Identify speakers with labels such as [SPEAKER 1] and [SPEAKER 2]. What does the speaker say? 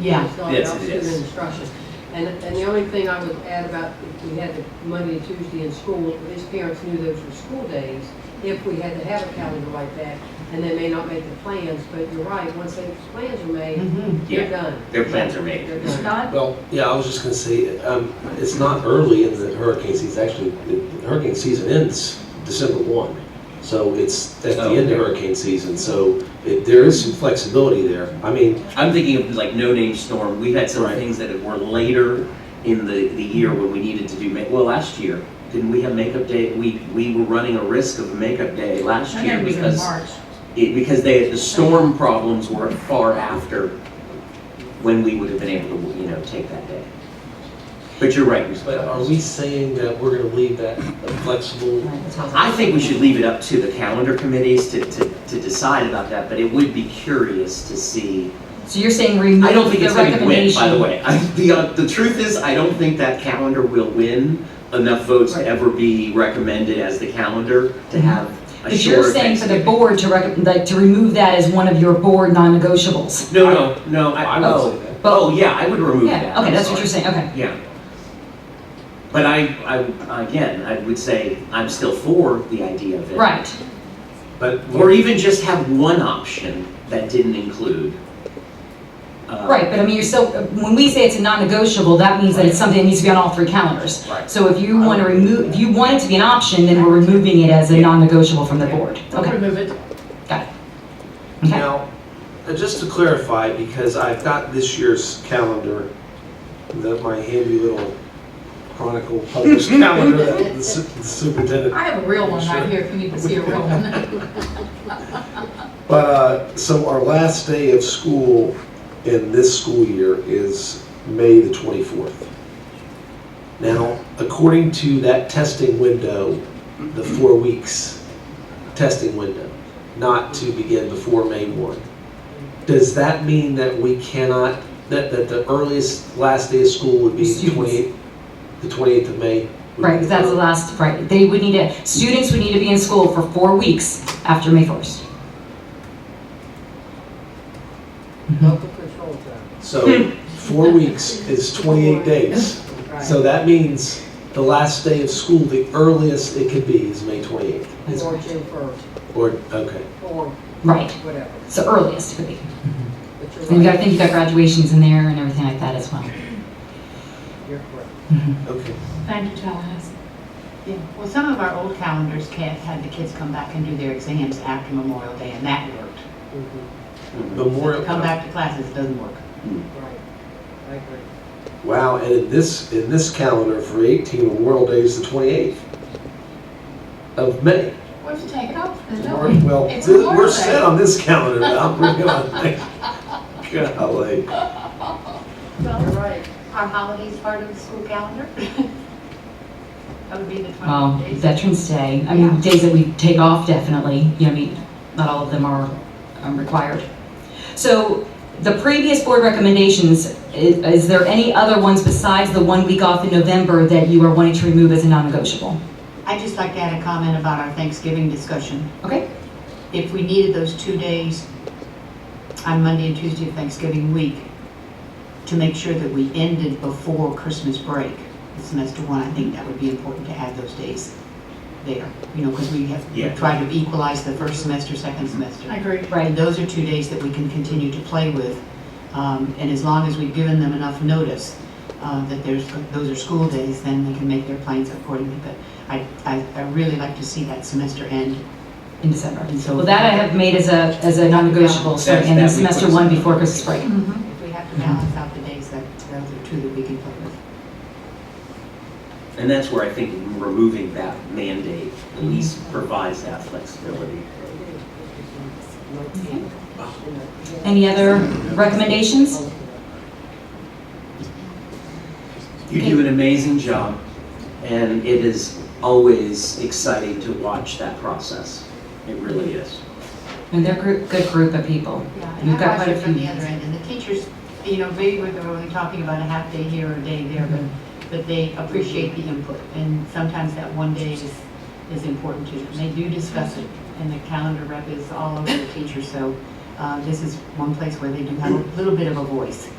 [SPEAKER 1] Yeah.
[SPEAKER 2] It's not
[SPEAKER 3] Yes,
[SPEAKER 2] about
[SPEAKER 3] it
[SPEAKER 2] student
[SPEAKER 3] is.
[SPEAKER 2] instruction. And, and the only thing I would add about if we had the Monday and Tuesday in school, his parents knew those were school days, if we had to have a calendar like that, and they may not make the plans, but you're right, once those plans are made,
[SPEAKER 4] Mm-hmm.
[SPEAKER 1] Mhm.
[SPEAKER 2] they're
[SPEAKER 3] Yeah.
[SPEAKER 2] done.
[SPEAKER 3] Their plans are made.
[SPEAKER 2] They're
[SPEAKER 5] Mm-hmm.
[SPEAKER 2] done.
[SPEAKER 4] Scott?
[SPEAKER 6] Well, yeah, I was just gonna say, um, it's not early in the hurricane season, actually, the hurricane season ends December one. So it's at the
[SPEAKER 3] Oh,
[SPEAKER 6] end
[SPEAKER 3] okay.
[SPEAKER 6] of hurricane season, so it, there is some flexibility there. I mean,
[SPEAKER 3] I'm thinking of like No Name Storm. We had some
[SPEAKER 6] Right.
[SPEAKER 3] things that were later in the, the year when we needed to do make. Well, last year didn't we have makeup day? We we were running a risk of a makeup day last
[SPEAKER 4] I
[SPEAKER 3] year
[SPEAKER 4] think it was in
[SPEAKER 3] because
[SPEAKER 4] March.
[SPEAKER 3] it, because they the storm problems were far after when we would have been able to you know take that day. But you're right. Ms.
[SPEAKER 6] but um, are
[SPEAKER 3] Flowers.
[SPEAKER 6] we saying that we're gonna leave that flexible?
[SPEAKER 3] I think we should leave it up to the calendar committees to, to, to decide about that, but it would be curious to see.
[SPEAKER 4] So you're saying remove
[SPEAKER 3] I don't think it's
[SPEAKER 4] the
[SPEAKER 3] gonna win, by the
[SPEAKER 4] recommendation?
[SPEAKER 3] way. I, the, uh, the truth is, I don't think that calendar will win enough votes to
[SPEAKER 4] Right. Mm-hmm.
[SPEAKER 3] ever be recommended as the calendar to have a
[SPEAKER 4] But
[SPEAKER 3] shorter
[SPEAKER 4] you're saying for the
[SPEAKER 3] Thanksgiving.
[SPEAKER 4] board to recommend, like, to remove that as one of your board non-negotiables?
[SPEAKER 3] No, no, no, I,
[SPEAKER 6] I would
[SPEAKER 3] oh,
[SPEAKER 6] say that.
[SPEAKER 3] oh, yeah, I would remove that.
[SPEAKER 4] Yeah, okay,
[SPEAKER 3] I'm
[SPEAKER 4] that's what
[SPEAKER 3] sorry.
[SPEAKER 4] you're saying, okay.
[SPEAKER 3] Yeah. But I, I, again, I would say I'm still for the idea of it.
[SPEAKER 4] Right,
[SPEAKER 6] But,
[SPEAKER 3] Or even just have one option that didn't include. uh,
[SPEAKER 4] right, but I mean, you're still, when we say it's a non-negotiable, that means that it's something that needs to be on all three calendars.
[SPEAKER 3] Right.
[SPEAKER 4] So if you
[SPEAKER 3] Uh,
[SPEAKER 4] want to remove, if you want it to be an option, then we're removing it as a non-negotiable from the board. Okay,
[SPEAKER 2] Remove it.
[SPEAKER 4] got it. Okay.
[SPEAKER 6] now, uh, just to clarify, because I've got this year's calendar, that my handy little Chronicle published calendar that the su- the superintendent
[SPEAKER 7] I have a real one right
[SPEAKER 6] Sure.
[SPEAKER 7] here if you need to see a real one.
[SPEAKER 6] But, uh, so our last day of school in this school year is May the 24th. Now, according to that testing window, the four weeks testing window, not to begin before May 1, does that mean that we cannot, that, that the earliest last day of school would be the
[SPEAKER 4] Students.
[SPEAKER 6] 28th, the 28th of May?
[SPEAKER 4] Right, because that's the last, right, they would need to, students would need to be in school for four weeks after May 1st.
[SPEAKER 2] Local control zone.
[SPEAKER 6] So, four weeks is 28 days.
[SPEAKER 2] Right.
[SPEAKER 6] So that means the last day of school, the earliest it could be is May 28th.
[SPEAKER 4] That's
[SPEAKER 2] Or
[SPEAKER 4] right.
[SPEAKER 2] June first,
[SPEAKER 6] Or, okay.
[SPEAKER 2] or
[SPEAKER 4] Right,
[SPEAKER 2] whatever.
[SPEAKER 4] so earliest could be.
[SPEAKER 2] But you're
[SPEAKER 4] And you got, I
[SPEAKER 2] right,
[SPEAKER 4] think you got graduations in there and everything like that as well.
[SPEAKER 2] you're correct.
[SPEAKER 6] Okay.
[SPEAKER 7] Thank you, Tallahassee.
[SPEAKER 5] Yeah, well, some of our old calendars can't, had the kids come back and do their exams after Memorial Day, and that worked.
[SPEAKER 2] Mhm,
[SPEAKER 6] Memorial.
[SPEAKER 5] Come back to classes, it doesn't work.
[SPEAKER 2] Right, I agree.
[SPEAKER 6] Wow, and in this, in this calendar for 18, Memorial Day is the 28th of May.
[SPEAKER 7] What if you take it off? There's no-
[SPEAKER 6] Well,
[SPEAKER 7] It's
[SPEAKER 6] th-
[SPEAKER 7] Memorial
[SPEAKER 6] we're
[SPEAKER 7] Day.
[SPEAKER 6] set on this calendar now. We're going, golly.
[SPEAKER 2] You're
[SPEAKER 5] Well,
[SPEAKER 2] right.
[SPEAKER 5] our holidays part of the school calendar? That would be the
[SPEAKER 4] Well,
[SPEAKER 5] 20 days.
[SPEAKER 4] Veterans Day, I mean, days that we take off definitely, you know, I mean, not all of them are um, required. So the previous board recommendations, i- is there any other ones besides the one week off in November that you are wanting to remove as a non-negotiable?
[SPEAKER 5] I'd just like to add a comment about our Thanksgiving discussion.
[SPEAKER 4] Okay,
[SPEAKER 5] If we needed those two days on Monday and Tuesday of Thanksgiving week to make sure that we ended before Christmas break, semester one, I think that would be important to add those days there. You know, because we
[SPEAKER 3] Yeah.
[SPEAKER 5] have tried to equalize the first semester, second semester.
[SPEAKER 7] I agree.
[SPEAKER 4] right,
[SPEAKER 5] And those are two days that we can continue to play with. Um, And as long as we've given them enough notice uh, that there's, those are school days, then they can make their plans accordingly. But I, I I really like to see that semester end.
[SPEAKER 4] in December.
[SPEAKER 5] And so-
[SPEAKER 4] Well, that I have made as a, as a non-negotiable, so
[SPEAKER 3] That's-
[SPEAKER 4] in
[SPEAKER 3] that we put
[SPEAKER 4] semester
[SPEAKER 3] as-
[SPEAKER 4] one before Christmas break.
[SPEAKER 5] If we have to balance out the days, that, those are two that we can play with.
[SPEAKER 3] And that's where I think removing that mandate at least provides that flexibility.
[SPEAKER 4] Any other recommendations?
[SPEAKER 3] You do an amazing job, and it is always exciting to watch that process. It really is.
[SPEAKER 4] And they're a group- good group of people.
[SPEAKER 5] Yeah,
[SPEAKER 4] We've
[SPEAKER 5] and
[SPEAKER 4] got
[SPEAKER 5] I
[SPEAKER 4] quite
[SPEAKER 5] watch
[SPEAKER 4] a
[SPEAKER 5] it from
[SPEAKER 4] few.
[SPEAKER 5] the other end, and the teachers, you know, maybe we're only talking about a half day here or a day there, but, but they appreciate the input, and sometimes that one day is, is important to them. They do discuss it, and the calendar rep is all over the teacher, so, uh, this is one place where they do have a little bit of a voice.